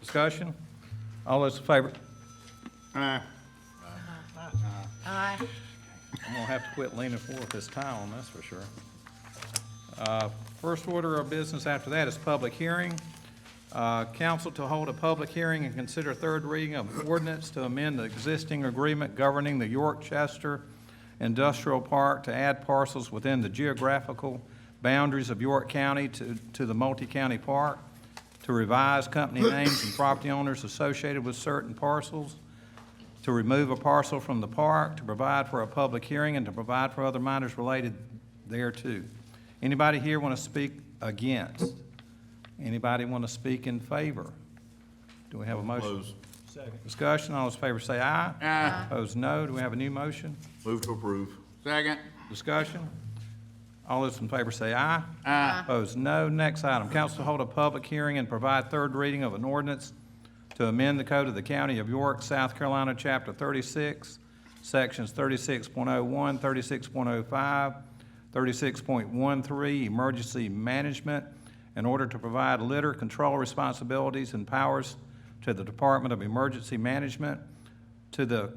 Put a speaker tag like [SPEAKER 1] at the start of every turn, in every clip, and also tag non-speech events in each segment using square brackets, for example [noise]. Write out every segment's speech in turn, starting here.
[SPEAKER 1] Discussion? All those in favor?
[SPEAKER 2] Aye.
[SPEAKER 3] Aye.
[SPEAKER 1] I'm gonna have to quit leaning forward this time, that's for sure. Uh, First order of business after that is public hearing. Uh, Council to hold a public hearing and consider third reading of ordinance to amend the existing agreement governing the York Chester Industrial Park to add parcels within the geographical boundaries of York County to, to the multi-county park, to revise company names and property owners associated with certain parcels, to remove a parcel from the park, to provide for a public hearing, and to provide for other matters related thereto. Anybody here want to speak against? Anybody want to speak in favor? Do we have a motion?
[SPEAKER 2] Close.
[SPEAKER 1] Discussion, all those in favor say aye.
[SPEAKER 2] Aye.
[SPEAKER 1] Opposed, no. Do we have a new motion?
[SPEAKER 2] Move to approve. Second.
[SPEAKER 1] Discussion? All those in favor say aye.
[SPEAKER 2] Aye.
[SPEAKER 1] Opposed, no. Next item, council to hold a public hearing and provide third reading of an ordinance to amend the code of the County of York, South Carolina, Chapter 36, Sections 36.01, 36.05, 36.13, Emergency Management, in order to provide litter control responsibilities and powers to the Department of Emergency Management, to the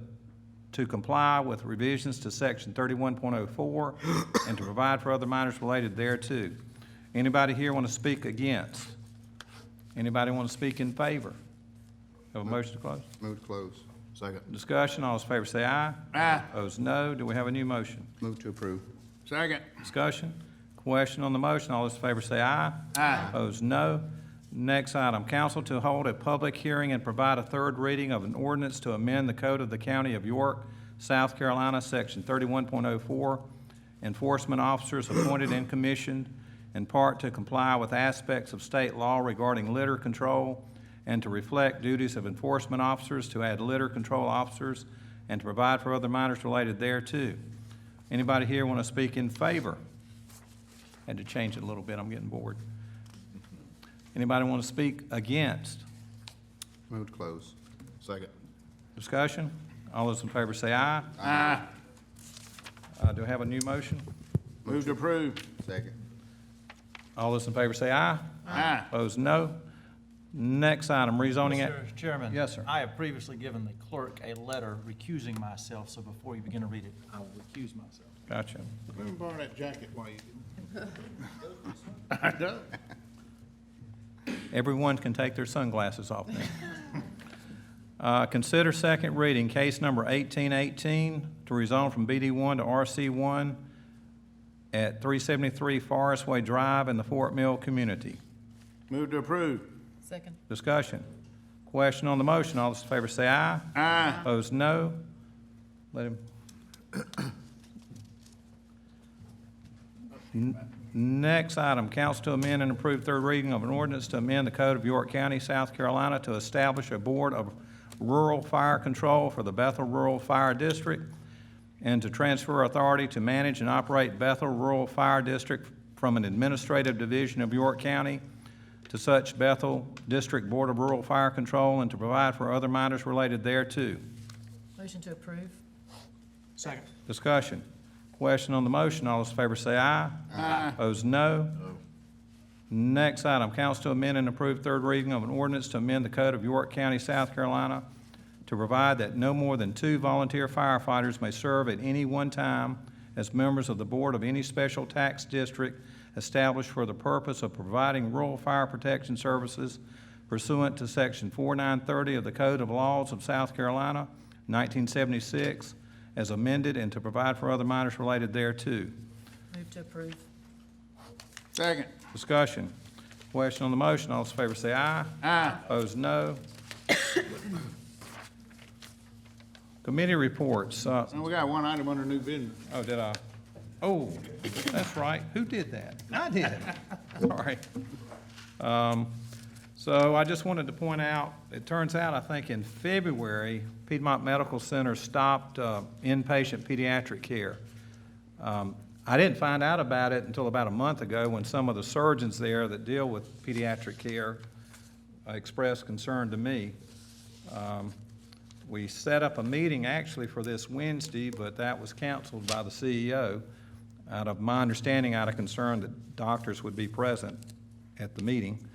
[SPEAKER 1] to comply with revisions to section thirty-one point oh four and to provide for other matters related thereto. Anybody here want to speak against? Anybody want to speak in favor? Have a motion to close?
[SPEAKER 2] Move to close. Second.
[SPEAKER 1] Discussion, all those in favor say aye.
[SPEAKER 2] Aye.
[SPEAKER 1] Opposed, no. Do we have a new motion?
[SPEAKER 2] Move to approve. Second.
[SPEAKER 1] Discussion, question on the motion, all those in favor say aye.
[SPEAKER 2] Aye.
[SPEAKER 1] Opposed, no. Next item, council to hold a public hearing and provide a third reading of an ordinance to amend the code of the County of York, South Carolina, Section 31.04, enforcement officers appointed and commissioned in part to comply with aspects of state law regarding litter control and to reflect duties of enforcement officers, to add litter control officers, and to provide for other matters related thereto. Anybody here want to speak in favor? Had to change it a little bit, I'm getting bored. Anybody want to speak against?
[SPEAKER 2] Move to close. Second.
[SPEAKER 1] Discussion? All those in favor say aye.
[SPEAKER 2] Aye.
[SPEAKER 1] Uh, Do I have a new motion?
[SPEAKER 2] Move to approve. Second.
[SPEAKER 1] All those in favor say aye.
[SPEAKER 2] Aye.
[SPEAKER 1] Opposed, no. Next item, rezoning it.
[SPEAKER 4] Mr. Chairman.
[SPEAKER 1] Yes, sir.
[SPEAKER 4] I have previously given the clerk a letter recusing myself, so before you begin to read it, I will recuse myself.
[SPEAKER 1] Gotcha.
[SPEAKER 2] Let me borrow that jacket while you do.
[SPEAKER 1] Everyone can take their sunglasses off now. [laughs] Uh, Consider second reading, case number 1818, to rezone from BD1 to RC1 at 373 Forest Way Drive in the Fort Mill community.
[SPEAKER 2] Move to approve.
[SPEAKER 3] Second.
[SPEAKER 1] Discussion. Question on the motion. All those in favor say aye.
[SPEAKER 2] Aye.
[SPEAKER 1] Opposed, no. Let him. N- Next item, council to amend and approve third reading of an ordinance to amend the code of York County, South Carolina to establish a board of rural fire control for the Bethel Rural Fire District and to transfer authority to manage and operate Bethel Rural Fire District from an administrative division of York County to such Bethel District Board of Rural Fire Control and to provide for other matters related thereto.
[SPEAKER 3] Motion to approve.
[SPEAKER 4] Second.
[SPEAKER 1] Discussion. Question on the motion, all those in favor say aye. Aye. Opposed, no. Next item, council to amend and approve third reading of an ordinance to amend the code of York County, South Carolina, to provide that no more than two volunteer firefighters may serve at any one time as members of the board of any special tax district established for the purpose of providing rural fire protection services pursuant to Section 4930 of the Code of Laws of South Carolina, 1976, as amended, and to provide for other matters related thereto.
[SPEAKER 3] Move to approve.
[SPEAKER 2] Second.
[SPEAKER 1] Discussion. Question on the motion, all those in favor say aye.
[SPEAKER 2] Aye.
[SPEAKER 1] Opposed, no. Committee reports, uh,
[SPEAKER 2] And we got one item under new business.
[SPEAKER 1] oh, did I? Oh, that's right, who did that? I did. [laughs] Sorry. Um, So I just wanted to point out, it turns out, I think in February, Piedmont Medical Center stopped uh, inpatient pediatric care. Um, I didn't find out about it until about a month ago when some of the surgeons there that deal with pediatric care uh, expressed concern to me. Um, We set up a meeting actually for this Wednesday, but that was canceled by the E CEO out of, my understanding, out of concern that doctors would be present at the meeting.